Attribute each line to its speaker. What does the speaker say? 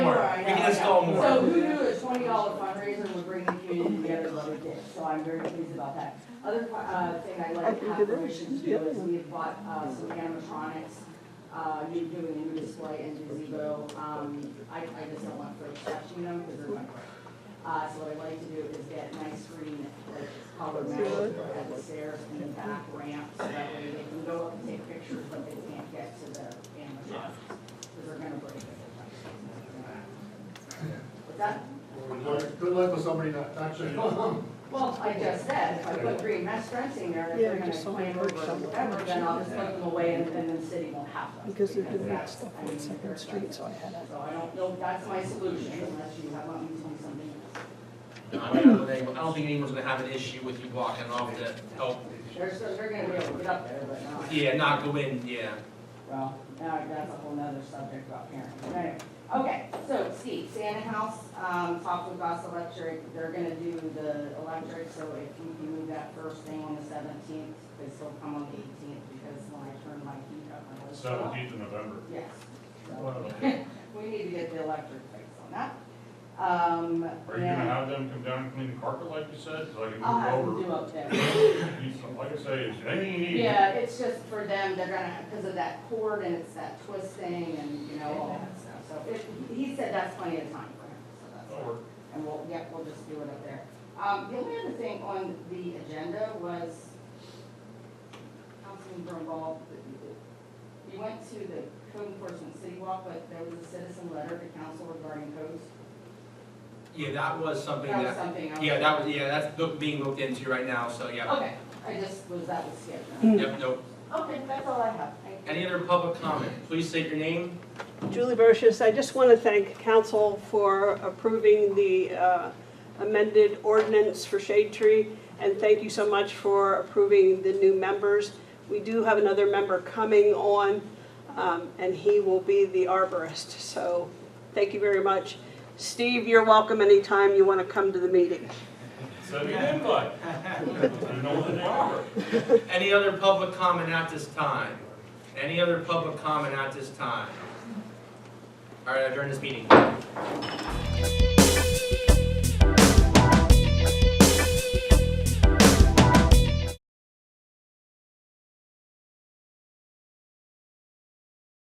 Speaker 1: all
Speaker 2: So
Speaker 1: morning.
Speaker 2: who knew a twenty dollar fundraiser would bring the community together like it did, so I'm very pleased about that. Other, uh, thing I'd like to have permission to do is we have bought, uh, some animatronics, uh, new, doing a new display in gazebo, um, I, I just don't want folks touching them because they're my. Uh, so what I'd like to do is get nice green, like, colored metal at the stairs and the back ramp, so that way they can go up and take pictures, but they can't get to the animatronics, because they're gonna break it. What's that?
Speaker 3: Good luck- good luck with somebody not touching.
Speaker 2: Well, I just said, if I put green mesh fencing there, if
Speaker 4: Yeah,
Speaker 2: they're gonna
Speaker 4: just someone
Speaker 2: claim over
Speaker 4: work
Speaker 2: or
Speaker 4: somewhere.
Speaker 2: whatever, then I'll just put them away and then the city won't have them.
Speaker 4: Because they're doing that
Speaker 2: that's-
Speaker 4: stuff
Speaker 2: I mean,
Speaker 4: on Second Street, so I had a,
Speaker 2: So I don't know, that's my solution, unless you have, want me to do something else.
Speaker 5: I mean, I don't think- I don't think anyone's gonna have an issue with you walking off the, oh,
Speaker 2: They're, so they're gonna be able to get up there, but not.
Speaker 5: yeah, not go in, yeah.
Speaker 2: Well, now that's a whole nother subject about parenting, but anyway. Okay, so Steve, Santa House, um, talked with Goss Electric, they're gonna do the electric, so if you can move that first thing on the seventeenth, they still come on the eighteenth, because when I turn my heat up, my lights go up.
Speaker 6: Seventeenth of November.
Speaker 2: Yes. So,
Speaker 6: Are
Speaker 2: We need to get the electric fixed on that. Um,
Speaker 6: you gonna
Speaker 2: yeah,
Speaker 6: have them come down and clean the carpet like you said, so I can
Speaker 2: I'll have them
Speaker 6: move
Speaker 2: do up there.
Speaker 6: over? You s- Like I say, is anything you need?
Speaker 2: Yeah, it's just for them, they're gonna, because of that cord and it's that twist thing and, you know, all that stuff. So it, he said that's plenty of time for him, so that's.
Speaker 6: That'll work.
Speaker 2: And we'll, yeah, we'll just do it up there. Um, the only other thing on the agenda was, Councilman Brumball, you went to the code enforcement city walk, but there was a citizen letter to council regarding codes.
Speaker 5: Yeah, that was something
Speaker 2: That was
Speaker 5: that,
Speaker 2: something else.
Speaker 5: yeah, that was, yeah, that's look- being looked into right now, so yeah.
Speaker 2: Okay, I just, was that was skipped?
Speaker 5: Yep, nope.
Speaker 2: Okay, that's all I have. Thank you.
Speaker 5: Any other public comment? Please state your name.
Speaker 4: Julie Brochus, I just want to thank council for approving the uh, amended ordinance for Shade Tree, and thank you so much for approving the new members. We do have another member coming on, um, and he will be the arborist, so thank you very much. Steve, you're welcome anytime you want to come to the meeting.
Speaker 6: Send me an invite. You know what they are.
Speaker 5: Any other public comment at this time? Any other public comment at this time? All right, I adjourn this meeting.